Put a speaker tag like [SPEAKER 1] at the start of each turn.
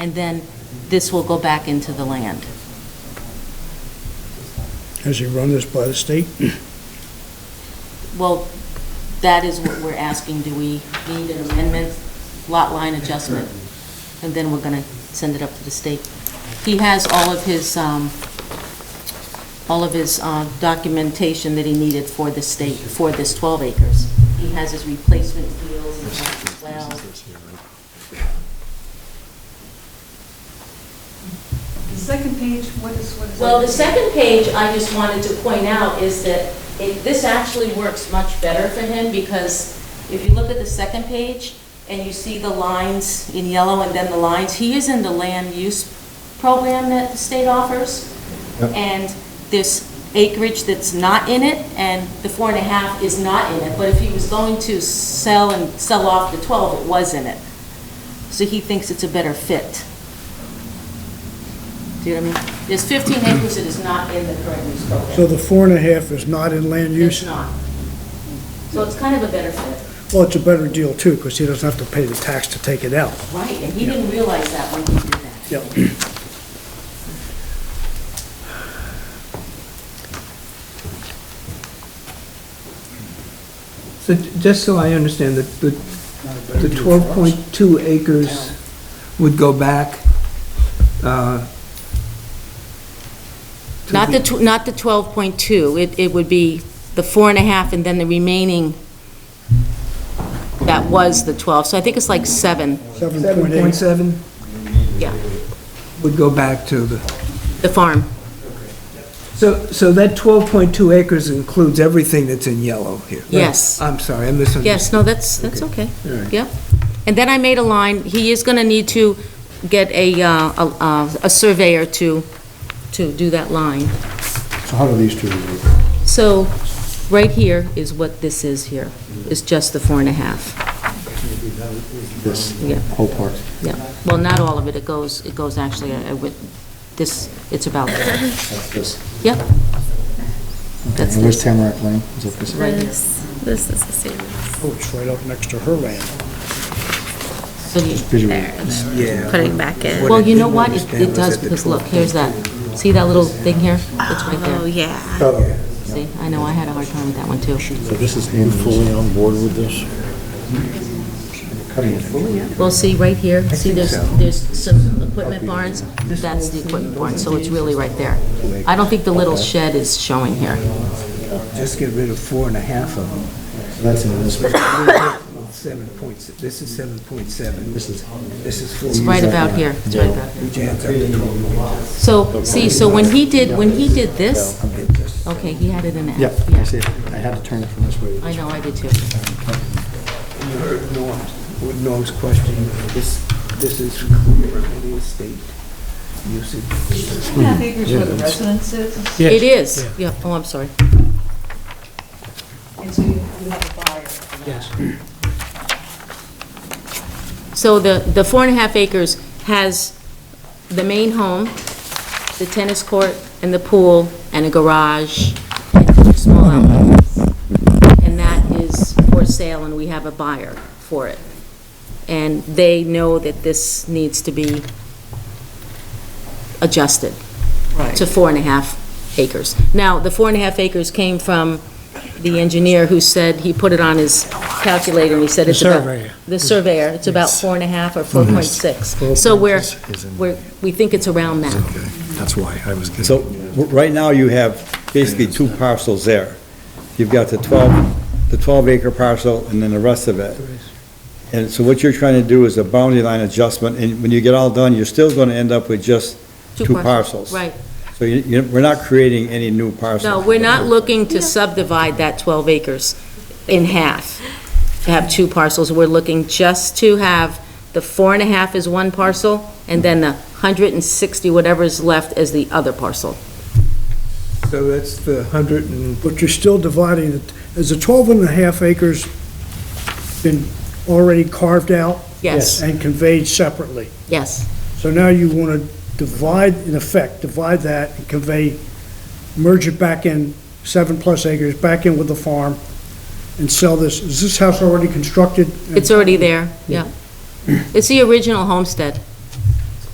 [SPEAKER 1] and then this will go back into the land.
[SPEAKER 2] Has he run this by the state?
[SPEAKER 1] Well, that is what we're asking, do we need an amendment, lot line adjustment? And then we're gonna send it up to the state. He has all of his, um, all of his uh, documentation that he needed for the state, for this 12 acres. He has his replacement deals and stuff as well.
[SPEAKER 3] The second page, what is, what is?
[SPEAKER 1] Well, the second page, I just wanted to point out is that it, this actually works much better for him because if you look at the second page and you see the lines in yellow and then the lines, he is in the land use program that the state offers.
[SPEAKER 4] Yep.
[SPEAKER 1] And this acreage that's not in it and the four and a half is not in it, but if he was going to sell and sell off the 12, it was in it. So he thinks it's a better fit. Do you know what I mean? There's 15 acres that is not in the current use program.
[SPEAKER 2] So the four and a half is not in land
[SPEAKER 1] It's
[SPEAKER 2] use?
[SPEAKER 1] not. So it's kind of a better fit.
[SPEAKER 2] Well, it's a better deal too, because he doesn't have to pay the tax to take it out.
[SPEAKER 1] Right, and he didn't realize that when he did that.
[SPEAKER 2] Yep.
[SPEAKER 4] So j- just so I understand, the, the the 12.2 acres would go back, uh, to
[SPEAKER 1] Not the, tw- not the 12.2, it, it would be the four and a half and then the remaining that was the 12, so I think it's like seven,
[SPEAKER 2] Seven point eight.
[SPEAKER 4] 7.7
[SPEAKER 1] yeah,
[SPEAKER 4] would go back to the,
[SPEAKER 1] the farm.
[SPEAKER 4] so, so that 12.2 acres includes everything that's in yellow here?
[SPEAKER 1] Yes.
[SPEAKER 4] I'm sorry, I misunderstood.
[SPEAKER 1] Yes, no, that's, that's okay.
[SPEAKER 4] All right.
[SPEAKER 1] Yep. And then I made a line, he is going to need to get a, uh, a uh, a surveyor to, to do that line.
[SPEAKER 5] So how do these two relate?
[SPEAKER 1] So, right here is what this is here, is just the four and a half.
[SPEAKER 5] This
[SPEAKER 1] Yeah.
[SPEAKER 5] whole part?
[SPEAKER 1] Yeah, well, not all of it, it goes, it goes actually, uh, with this, it's about, there.
[SPEAKER 5] That's this.
[SPEAKER 1] yep,
[SPEAKER 5] Okay,
[SPEAKER 1] That's
[SPEAKER 5] and where's
[SPEAKER 1] this.
[SPEAKER 5] Tamarack Lane? Is that this?
[SPEAKER 1] Right.
[SPEAKER 6] This, this is the same.
[SPEAKER 2] Oh, it's right up next to her land.
[SPEAKER 1] so you,
[SPEAKER 5] Visually.
[SPEAKER 6] There, and
[SPEAKER 4] Yeah.
[SPEAKER 6] then putting back in.
[SPEAKER 1] well, you know
[SPEAKER 4] didn't
[SPEAKER 1] what, it
[SPEAKER 4] understand
[SPEAKER 1] it
[SPEAKER 4] was
[SPEAKER 1] does,
[SPEAKER 4] that the
[SPEAKER 1] because look,
[SPEAKER 4] 12.2
[SPEAKER 1] here's that, see that little thing here? It's right
[SPEAKER 6] Oh,
[SPEAKER 1] there,
[SPEAKER 6] yeah.
[SPEAKER 5] So
[SPEAKER 1] see, I know, I had a hard time with that one, too.
[SPEAKER 5] this is in fully on board with this? Cutting it.
[SPEAKER 1] Well, see, right here, see,
[SPEAKER 4] think
[SPEAKER 1] there's,
[SPEAKER 4] so.
[SPEAKER 1] there's some equipment barns, that's the equipment barn, so it's really right there. I don't think the little shed is showing here.
[SPEAKER 4] Just get rid of four and a half of them.
[SPEAKER 5] So That's in this.
[SPEAKER 4] Seven points, this is 7.7.
[SPEAKER 5] This is-
[SPEAKER 4] This is
[SPEAKER 1] It's
[SPEAKER 4] 4.
[SPEAKER 1] right about here, it's right about here.
[SPEAKER 4] Which adds up to 12.2.
[SPEAKER 1] So, see, so when he did, when he did this, okay, he had it in F.
[SPEAKER 5] Yep, I see it. I had to turn it from this way. to
[SPEAKER 1] I
[SPEAKER 5] this
[SPEAKER 1] know, I did too.
[SPEAKER 4] You heard Norm's, with Norm's question, this, this is clear in the estate usage.
[SPEAKER 3] Two and a half acres where the residence is,
[SPEAKER 1] It is, yeah, oh, I'm sorry.
[SPEAKER 3] and so you you have a buyer.
[SPEAKER 4] Yes.
[SPEAKER 1] So the, the four and a half acres has the main home, the tennis court, and the pool, and a garage, and two small outlets. And that is for sale, and we have a buyer for it. And they know that this needs to be adjusted to four and a half acres. Now, the four and a half acres came from the engineer who said, he put it on his calculator, and he said it's about...
[SPEAKER 2] surveyor.
[SPEAKER 1] The surveyor, it's about four and a half or 4.6. So we're, we're, we think it's around that.
[SPEAKER 5] That's why I was.
[SPEAKER 7] So, w- right now, you have basically two parcels there. You've got the 12, the 12 acre parcel and then the rest of it. And so what you're trying to do is a boundary line adjustment, and when you get all done, you're still going to end up with just two parcels.
[SPEAKER 1] Right.
[SPEAKER 7] So you, you, we're not creating any new parcels.
[SPEAKER 1] No, we're not looking to subdivide that 12 acres in half, to have two parcels. We're looking just to have the four and a half is one parcel, and then the 160, whatever is left, is the other parcel.
[SPEAKER 4] So that's the 100 and,
[SPEAKER 2] But you're still dividing it. Has the twelve and a half acres been already carved out?
[SPEAKER 1] Yes,
[SPEAKER 2] And conveyed separately?
[SPEAKER 1] yes,
[SPEAKER 2] So now you want to divide, in effect, divide that and convey, merge it back in, seven plus acres, back in with the farm, and sell this. Is this house already constructed?
[SPEAKER 1] it's already there, yeah. It's the original homestead.